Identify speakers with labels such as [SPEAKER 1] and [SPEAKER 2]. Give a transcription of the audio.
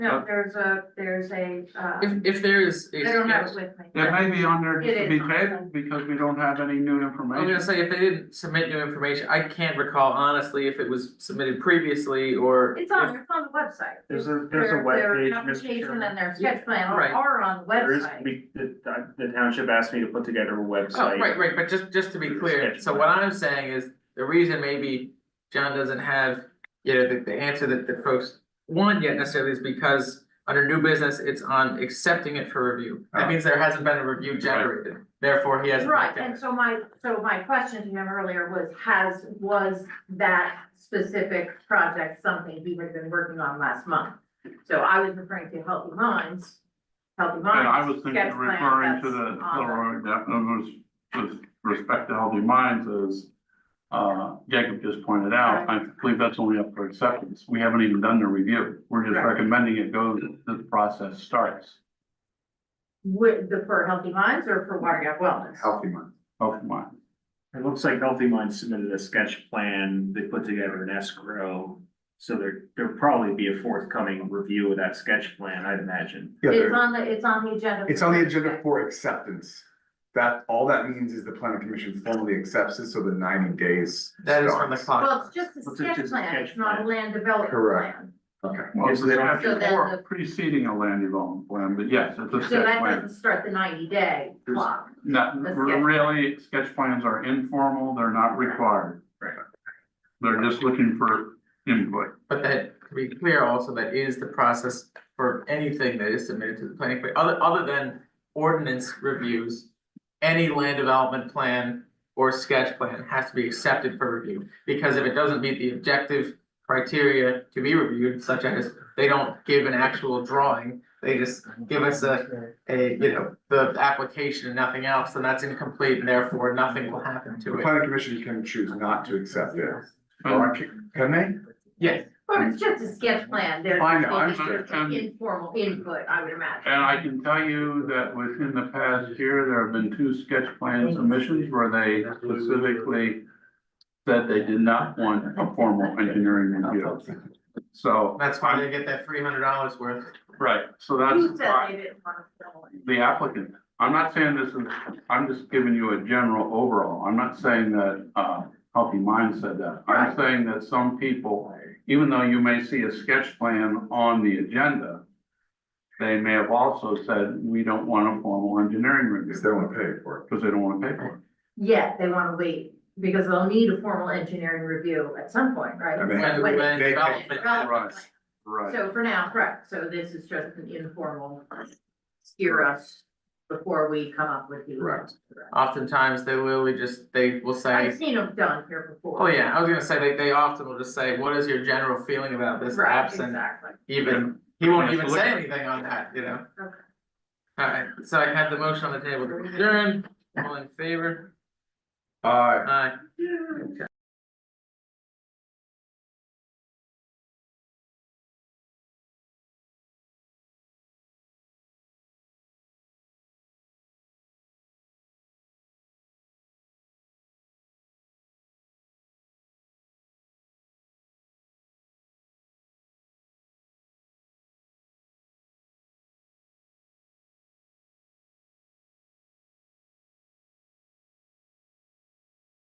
[SPEAKER 1] No, there's a, there's a, uh,
[SPEAKER 2] If, if there is.
[SPEAKER 1] I don't have it with me.
[SPEAKER 3] It may be on there just
[SPEAKER 1] It
[SPEAKER 3] to be
[SPEAKER 1] is on there.
[SPEAKER 3] tabled because we don't have any
[SPEAKER 4] Oh,
[SPEAKER 3] new
[SPEAKER 2] I'm gonna
[SPEAKER 3] information.
[SPEAKER 2] say, if they didn't submit new information, I can't recall honestly if it was submitted previously or.
[SPEAKER 1] It's on, it's on the website.
[SPEAKER 4] There's a- there's a
[SPEAKER 1] Their-
[SPEAKER 4] web
[SPEAKER 1] their
[SPEAKER 4] page, Mr.
[SPEAKER 1] Application
[SPEAKER 4] Chairman.
[SPEAKER 1] and their sketch plan are
[SPEAKER 2] Right.
[SPEAKER 1] are on the
[SPEAKER 4] There is,
[SPEAKER 1] website.
[SPEAKER 4] we, the, the township asked me to put together a
[SPEAKER 2] if-
[SPEAKER 4] website.
[SPEAKER 2] Oh, right, right, but just, just to be clear, so what I'm saying is, the reason maybe John doesn't have, you know, the, the answer that the folks want yet necessarily is because under new business, it's on accepting it for review. That means there hasn't been a review generated, therefore he hasn't.
[SPEAKER 1] Right,
[SPEAKER 2] looked at
[SPEAKER 1] and
[SPEAKER 2] it.
[SPEAKER 1] so my, so my question to him earlier was, has, was that specific project something he had been working on last month? So I was referring to Healthy Minds, Healthy
[SPEAKER 3] And
[SPEAKER 1] Minds.
[SPEAKER 3] I was thinking,
[SPEAKER 1] sketch plan
[SPEAKER 3] referring to
[SPEAKER 1] that's
[SPEAKER 3] the,
[SPEAKER 1] on the-
[SPEAKER 3] the- that was, with respect to healthy minds is, uh, Jacob just pointed out, I believe that's only up for acceptance. We haven't even done the review. We're just
[SPEAKER 1] Right.
[SPEAKER 3] recommending it go, the process starts.
[SPEAKER 1] With the, for Healthy Minds or for Water Gap Wellness?
[SPEAKER 5] healthy mind.
[SPEAKER 3] Healthy mind.
[SPEAKER 4] It looks like Healthy Minds submitted a sketch plan, they put together an escrow. So there, there'll probably be a forthcoming review of that sketch plan, I'd imagine.
[SPEAKER 5] Yeah,
[SPEAKER 1] It's
[SPEAKER 5] there-
[SPEAKER 1] on the, it's on the agenda.
[SPEAKER 5] it's on the agenda for acceptance. That, all that means is the planning commission formally accepts it, so the ninety days
[SPEAKER 2] That is from the
[SPEAKER 5] starts.
[SPEAKER 2] clock.
[SPEAKER 1] Well, it's just a
[SPEAKER 4] It's
[SPEAKER 1] sketch
[SPEAKER 4] just a
[SPEAKER 1] plan,
[SPEAKER 4] sketch
[SPEAKER 1] it's not a
[SPEAKER 4] plan.
[SPEAKER 1] land development
[SPEAKER 5] Correct.
[SPEAKER 1] plan.
[SPEAKER 5] Okay,
[SPEAKER 3] Well,
[SPEAKER 4] Yes,
[SPEAKER 3] they
[SPEAKER 4] so-
[SPEAKER 3] have
[SPEAKER 1] So then
[SPEAKER 3] before
[SPEAKER 1] the-
[SPEAKER 3] preceding a land development plan, but yes, it's a
[SPEAKER 1] So
[SPEAKER 3] sketch
[SPEAKER 1] that
[SPEAKER 3] plan.
[SPEAKER 1] doesn't start the ninety day
[SPEAKER 3] There's-
[SPEAKER 1] clock.
[SPEAKER 3] Not,
[SPEAKER 1] the sketch plan.
[SPEAKER 3] really, sketch plans are informal, they're not required.
[SPEAKER 4] Right.
[SPEAKER 3] They're just looking for input.
[SPEAKER 2] But that, to be clear also, that is the process for anything that is submitted to the planning, commi- other, other than ordinance reviews. Any land development plan or sketch plan has to be accepted for review, because if it doesn't meet the objective criteria to be reviewed, such as they don't give an actual drawing, they just give us a, a, you know, the application and nothing else, then that's incomplete, and therefore nothing will happen
[SPEAKER 5] the
[SPEAKER 2] to it.
[SPEAKER 5] planning commission can choose not to accept it,
[SPEAKER 3] And
[SPEAKER 5] or can can they?
[SPEAKER 2] Yes,
[SPEAKER 1] But it's just a sketch plan, there's.
[SPEAKER 5] I know, I
[SPEAKER 3] understand.
[SPEAKER 1] Informal input, I would imagine.
[SPEAKER 3] and I can tell you that within the past year, there have been two sketch plan submissions where they specifically said they did not want a formal engineering review. So,
[SPEAKER 2] that's why they get that three hundred dollars worth.
[SPEAKER 3] right, so
[SPEAKER 1] Who
[SPEAKER 3] that's
[SPEAKER 1] said
[SPEAKER 3] why
[SPEAKER 1] they didn't want to fill in?
[SPEAKER 3] the applicant, I'm not saying this is, I'm just giving you a general overall. I'm not saying that, uh, Healthy Mind said that. I'm
[SPEAKER 1] Right.
[SPEAKER 3] saying that some people even though you may see a sketch plan on the agenda, they may have also said, we don't want a formal engineering review,
[SPEAKER 5] Because they wanna pay for it.
[SPEAKER 3] because they don't want to pay for
[SPEAKER 1] Yet they want to wait, because they'll need a formal engineering review at some point,
[SPEAKER 5] I
[SPEAKER 1] right?
[SPEAKER 5] mean,
[SPEAKER 2] When,
[SPEAKER 1] Wait,
[SPEAKER 2] when
[SPEAKER 5] they-
[SPEAKER 2] development.
[SPEAKER 1] Development
[SPEAKER 3] right.
[SPEAKER 1] plan.
[SPEAKER 3] it. Right.
[SPEAKER 1] So for now, correct, so this is just an informal steer us before we come up with the.
[SPEAKER 5] Correct.
[SPEAKER 2] Oftentimes, they literally just, they will
[SPEAKER 1] I've
[SPEAKER 2] say,
[SPEAKER 1] seen them done here before.
[SPEAKER 2] oh yeah, I was gonna say, they, they often will just say, what is your general feeling about this
[SPEAKER 1] Right,
[SPEAKER 2] absent?
[SPEAKER 1] exactly.
[SPEAKER 2] Even, he won't
[SPEAKER 3] Yeah,
[SPEAKER 2] even
[SPEAKER 3] so
[SPEAKER 2] say
[SPEAKER 3] look-
[SPEAKER 2] anything on that, you know?
[SPEAKER 1] Okay.
[SPEAKER 2] Alright, so I had the motion on the table, to adjourn, all in favor,
[SPEAKER 5] Uh,
[SPEAKER 2] aye.